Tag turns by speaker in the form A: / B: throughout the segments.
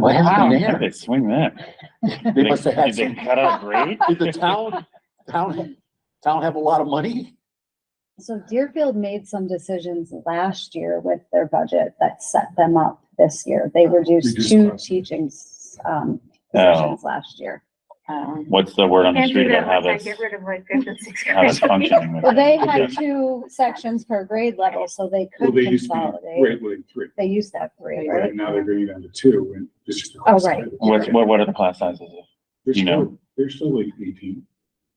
A: What happened there?
B: They swing that.
A: They must have had
B: Did they
A: some,
B: cut out a grade?
A: did the town, town, town have a lot of money?
C: So Deerfield made some decisions last year with their budget that set them up this year. They reduced
D: Reduced
C: two
D: costs.
C: teaching, s- um,
B: Oh.
C: positions last year. Um,
B: What's the word on the
E: Can't
B: street
E: do
B: about
E: that
B: how
E: once I
B: this,
E: get rid of like fifth and sixth
B: how this
E: grade.
B: functioning? with
C: Well, they
B: it?
C: had
B: Yeah.
C: two sections per grade level, so they
D: Well,
C: could
D: they used to be
C: consolidate.
D: grade like three,
C: They used that three,
D: right?
C: right?
D: And now they're bringing it down to two and it's just.
C: Oh, right.
B: What's, what, what are the class sizes? of-
D: They're
B: you know.
D: still, they're still like eighteen,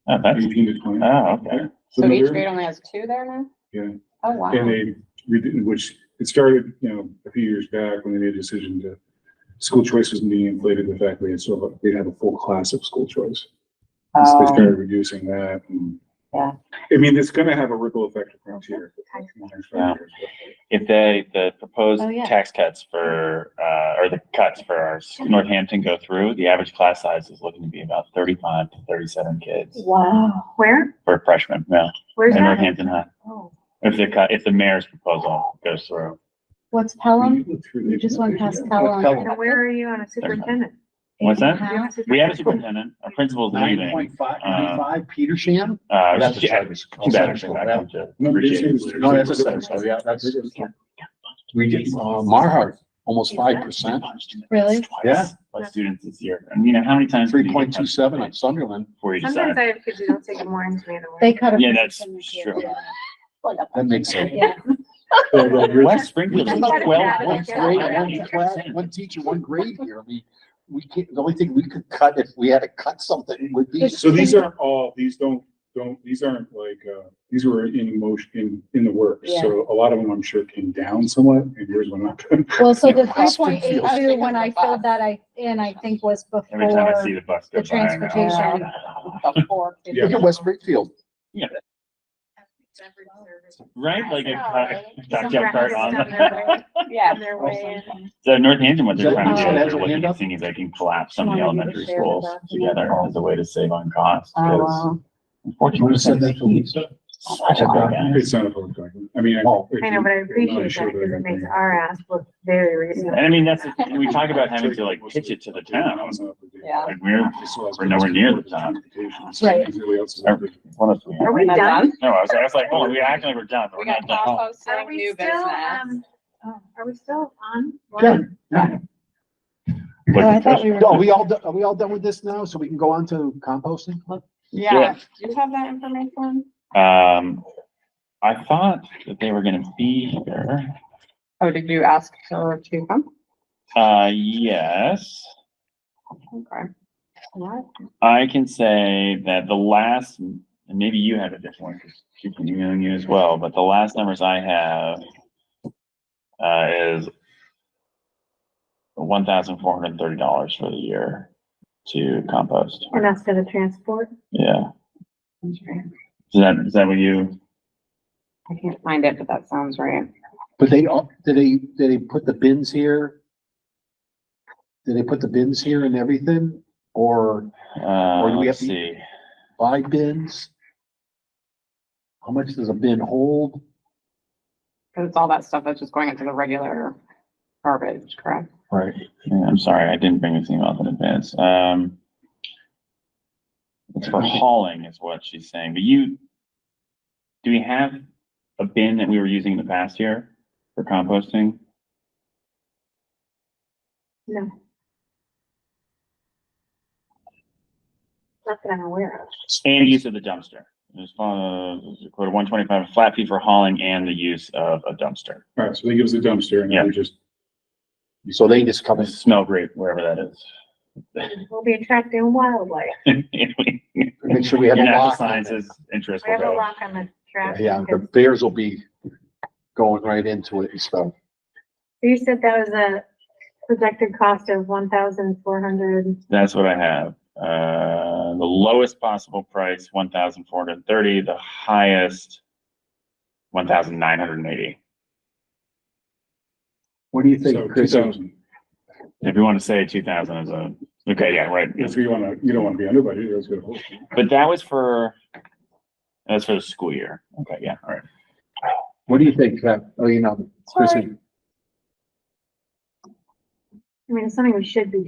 B: Oh, that's,
D: eighteen to twenty.
B: oh, okay.
F: So each
D: they're-
F: grade only has two there now?
D: Yeah.
F: Oh, wow.
D: And they, we didn't, which, it started, you know, a few years back when they made a decision to, school choice was being inflated, the fact they had sort of, they had a full class of school choice. And so They
F: Oh,
D: started reducing that and.
F: Yeah.
D: I mean, it's gonna have a ripple effect across here.
B: Yeah. If they, the proposed
C: Oh, yeah.
B: tax cuts for, uh, or the cuts for our s- Northampton go through, the average class size is looking to be about thirty-five to thirty-seven kids
C: Wow.
E: Where?
B: for freshmen, no,
E: Where's
B: in
E: that?
B: Northampton High.
E: Oh,
B: If the cut, if the mayor's proposal goes through,
C: What's Pelham? You just went past Pelham.
B: Oh,
A: Pelham.
E: So where are you on a superintendent?
B: What's that?
E: Do you have a
B: we have a
E: superintendent?
B: superintendent, our principal's
A: Nine
B: leaving.
A: point five, nine five, Petersham?
B: Uh,
A: That's a
B: she-
A: charter school.
B: too bad
A: Charter
B: she's
A: school,
B: not
A: yeah.
B: coming to
D: No,
B: appreciate it.
D: it's-
A: No, that's a seven, so yeah, that's,
D: We
A: uh, Marhart, almost five percent,
C: Really?
A: Yeah.
B: By students this year. And you know, how many times? do you
A: three
B: get
A: point two seven
B: tested
A: at Sunderland.
B: Before you
E: Sometimes
B: decide.
E: I have kids who don't take it morning to me anymore.
C: They cut a.
B: Yeah, that's
C: position this
B: true.
C: year.
A: That makes sense.
C: Yeah.
D: uh,
B: West Springfield is
A: Twelve,
E: cut it
B: twelve
E: out
A: one
E: of
B: points
E: the
A: grade,
E: calendar.
A: one class, one teacher, one grade here. I mean, we can't, the only thing we could cut if we had to cut something would be.
D: So these are all, these don't, don't, these aren't like, uh, these were in motion, in, in the works. So a lot of them, I'm sure, came down somewhat and yours were not.
C: Well, so the three
A: Austin
C: point eight
A: feels-
C: two, when I filled that I, in, I think was
B: Every time I see
C: before,
B: the bus
C: the
B: go by. "Oh, I know.
C: transportation.
D: Yeah.
A: Look at West Springfield.
B: Right, like uh,
E: Yeah,
B: a
E: right.
B: duck
E: Some
B: jump cart
E: breakfast
B: on.
E: on their way-
F: yeah.
E: on their way in.
B: So Northampton, what they're
A: Is
B: trying to
C: that-
B: do
A: has
B: is
A: a
B: they're looking
A: window?
B: at seeing if they can collapse some of the
C: Wanna be
B: elementary
C: able to share the
B: schools
C: document.
B: together as a way to save on costs.
F: Oh,
B: Because
A: Do you want to send that
B: unfortunately,
A: to Lisa?
B: such a big ask.
D: It's not a public document. I mean.
A: Oh.
E: I know, but I appreciate that because it makes our ass look very
B: And
E: reasonable.
B: I mean, that's, the- we talk about having to like pitch it to the town.
F: Yeah.
B: Like we're, We're nowhere near the town.
C: Right.
B: what else we have?
E: Are we
F: Not
E: done?
B: No, I was, I was like, oh, we acting like we're done, but
F: We
B: we're
F: got
B: not done.
E: Are
F: composting,
E: we
F: new
E: still,
F: business.
E: um, oh, are we still on?
A: Yeah.
C: Oh, I thought we were-
A: Are we all, do- are we all done with this now? So we can go on to composting?
F: Yeah, do you have that information?
B: Um, I thought that they were gonna be here.
F: Oh, did you ask her to come?
B: Uh, yes.
F: Okay. Alright.
B: I can say that the last, and maybe you have a different one, because she's been emailing you as well, but the last numbers I have uh, is one thousand four hundred and thirty dollars for the year to compost.
E: And that's for the transport?
B: Yeah.
F: Okay.
B: Is that, is that what you,
F: I can't find it, but that sounds right.
A: But they, all- did they, did they put the bins here? Did they put the bins here and everything? Or
B: uh,
A: Or do we
B: let's
A: have to-
B: see.
A: buy bins? How much does a bin hold?
F: Cause it's all that stuff that's just going into the regular garbage, correct?
A: Right.
B: Yeah, I'm sorry, I didn't bring this email in advance. Um, it's for hauling is what she's saying, but you, do we have a bin that we were using in the past year for composting?
E: No. Not that I'm aware of.
B: And use of the dumpster. There's, uh, quote one twenty-five, flat fee for hauling and the use of a dumpster.
D: Alright, so they give us a dumpster and then we just.
A: So they just come
B: They
A: in.
B: Smell great, wherever that
E: We'll be attracting wildlife.
B: is.
A: Make sure we have a
B: Natural
A: lock. on
B: sciences interest
E: We
B: will
E: have a
B: go.
E: lock on the trash.
A: it. Yeah, the
E: because-
A: bears will be going right into it and stuff.
E: So you said that was a projected cost of one thousand four hundred.
B: That's what I have. Uh, the lowest possible price, one thousand four hundred and thirty, the highest, one thousand nine hundred and eighty.
A: What do you
D: So
A: think,
D: two
A: Chris?
D: thousand.
B: If you want to say two thousand is a, okay, yeah, right.
D: If you wanna, you don't wanna be under budget, that's good.
B: But that was for, that's for the school year. Okay, yeah, all right.
A: uh, What do you think, Kev? Oh, you know, Chris,
E: I mean, it's something we should be